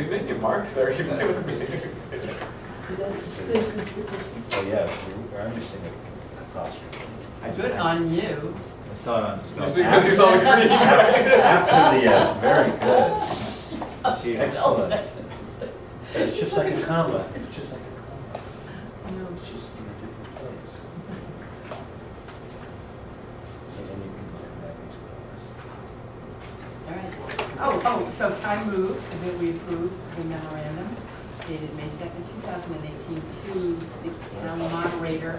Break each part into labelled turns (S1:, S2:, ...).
S1: menu, Mark's there, you might want to
S2: Citizens petition.
S3: Oh, yeah, you- I'm missing a apostrophe.
S4: Good on you.
S3: I saw it on spell.
S1: You see, because you saw the green.
S3: After after the S, very good.
S4: She-
S3: Excellent. It's just like a comma, it's just like a comma. It's just in a different place. So then you can put that into commas.
S4: All right. Oh, oh, so I move that we approve the memorandum dated May 2nd, 2018 to the town moderator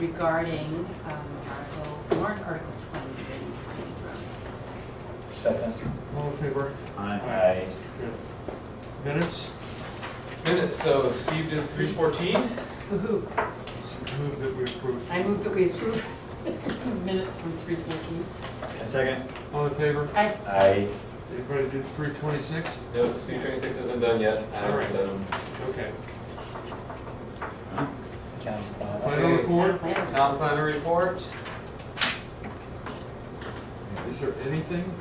S4: regarding um, Article, warrant Article 20 relating to scenic roads.
S3: Second.
S5: All in favor?
S3: Aye.
S5: Minutes?
S1: Minutes, so Steve did three fourteen,
S4: Woo-hoo.
S5: Move that we approve.
S4: I move that we approve minutes from 3:14.
S3: Second.
S5: All in favor?
S4: I,
S3: Aye.
S5: Anybody do three twenty-six?
S1: no, Steve twenty-six isn't done yet, um, I haven't done them.
S5: Okay.
S3: Count.
S5: Final report?
S1: Town planner report,
S5: Is there anything?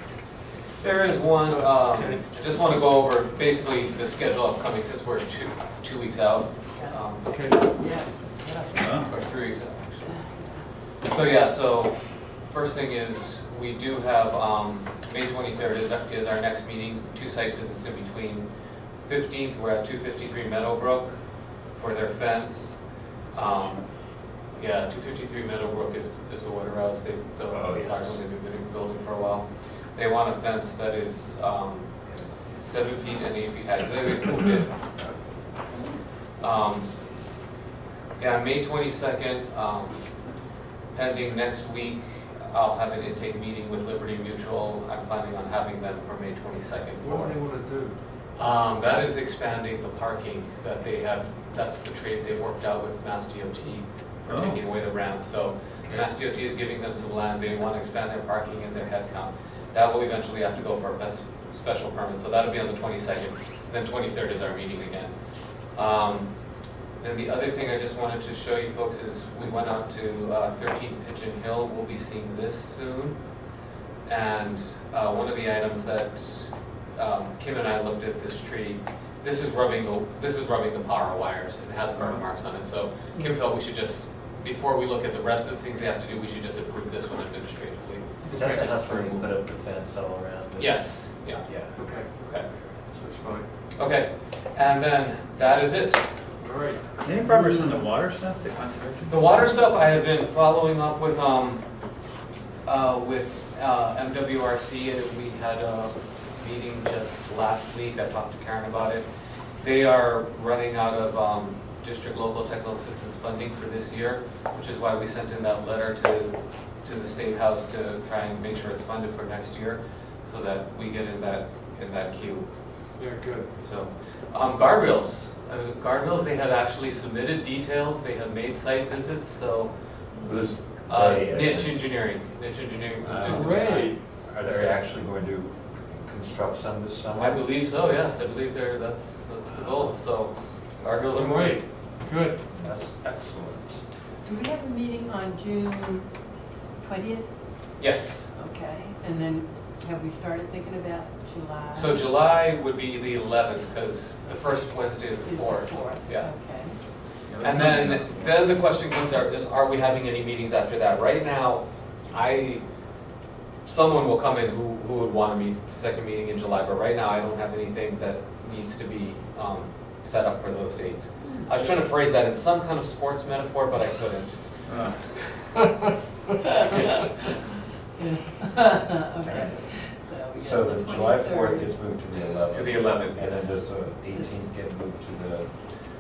S1: there is one, um,
S5: Okay.
S1: I just want to go over basically the schedule upcoming since we're two, two weeks out. um,
S5: Okay,
S4: yeah.
S3: Huh?
S1: Or three weeks out, actually. So, yeah, so first thing is, we do have, um, May 23rd is, is our next meeting, two site visits in between. 15th, we're at 253 Meadowbrook for their fence. Um, Yeah, 253 Meadowbrook is, is the water house, they, the,
S3: Oh, yes.
S1: they've been building- building for a while. They want a fence that is um, seven feet and eight feet high, they moved it um, Yeah, May 22nd, um, pending next week, I'll have an intake meeting with Liberty Mutual. I'm planning on having them for May 22nd.
S5: what do they
S1: for-
S5: wanna do?
S1: Um, That is expanding the parking that they have, that's the trade they've worked out with Mass DOT for
S3: Oh.
S1: taking away the ramp. So Mass DOT is giving them some land, they want to expand their parking and their headcount. That will eventually have to go for a best- special permit, so that'll be on the 22nd. Then 23rd is our meeting again. Um, Then the other thing I just wanted to show you folks is we went out to uh, 13 Pigeon Hill, we'll be seeing this soon. And uh, one of the items that um, Kim and I looked at this tree, this is rubbing the, this is rubbing the power wires, it has
S3: Mm-hmm.
S1: burn marks on it, so Kim felt we should just, before we look at the rest of the things they have to do, we should just approve this one administratively.
S3: Is that the house where you put up the fence all around? the-
S1: Yes, yeah,
S3: Yeah.
S5: Okay,
S1: okay,
S5: that's fine.
S1: okay, and then, that is it.
S5: All right.
S3: Any progress on the water stuff, the conservation?
S1: The water stuff, I have been following up with, um, uh, with, uh, MWRC, and we had a meeting just last week, I talked to Karen about it. They are running out of, um, district local technical assistance funding for this year, which is why we sent in that letter to, to the State House to try and make sure it's funded for next year, so that we get in that, in that queue.
S5: Yeah, good.
S1: So, um, guardrails, Uh, guardrails, they have actually submitted details, they have made site visits, so,
S3: Who's,
S1: uh,
S3: they, uh,
S1: niche engineering, niche engineering
S3: Ah,
S1: was doing the
S5: Hooray.
S1: design.
S3: Are they actually going to construct some this summer?
S1: I believe so, yes, I believe they're, that's, that's the goal, so guardrails are moving.
S5: Great. Good.
S3: That's excellent.
S4: Do we have a meeting on June 20th?
S1: Yes,
S4: Okay, and then have we started thinking about July?
S1: so July would be the eleventh, because the first Wednesday is
S4: Is
S1: the
S4: the
S1: fourth.
S4: fourth,
S1: Yeah,
S4: okay.
S1: and then, then the question comes, are, is, are we having any meetings after that? Right now, I someone will come in who, who would want to meet, second meeting in July, but right now I don't have anything that needs to be, um, set up for those dates. I was trying to phrase that in some kind of sports metaphor, but I couldn't.
S3: Uh,
S4: Okay. we
S3: So
S4: got
S3: the July 4th
S4: 23rd.
S3: gets moved to the 11th.
S1: To the 11th,
S3: And then
S1: yes.
S3: does the 18th get moved to the,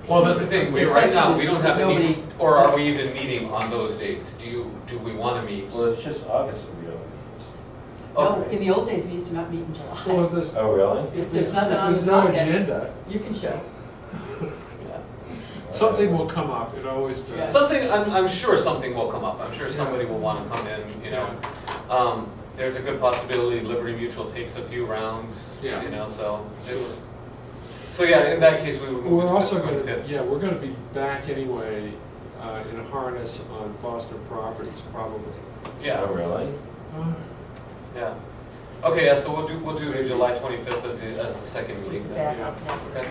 S1: Well, that's the thing, we, right now, we don't have any,
S4: Nobody-
S1: or are we even meeting on those dates? Do you, do we want to meet?
S3: well, it's just August that we don't meet.
S4: No, in the old days, we used to not meet in July.
S5: Well, this.
S3: Oh, really?
S4: If there's nothing on
S5: There's
S4: the
S5: no
S4: docket,
S5: agenda.
S4: you can show.
S1: Yeah.
S5: Something will come up, it always
S4: Yeah.
S5: does.
S1: Something, I'm, I'm sure something will come up, I'm sure somebody will wanna come in, you know. Um, there's a good possibility Liberty Mutual takes a few rounds, you
S5: Yeah.
S1: know, so. it was- So yeah, in that case, we would move
S5: We're
S1: it to
S5: also
S1: the
S5: gonna,
S1: twenty-fifth.
S5: yeah, we're gonna be back anyway, uh, in a harness on Boston properties, probably.
S3: Oh,
S1: Yeah,
S3: really?
S1: yeah. Okay, yeah, so we'll do, we'll do July twenty-fifth as the, as the second
S4: It's
S1: meeting
S4: a
S1: then.
S4: backup.
S1: Okay.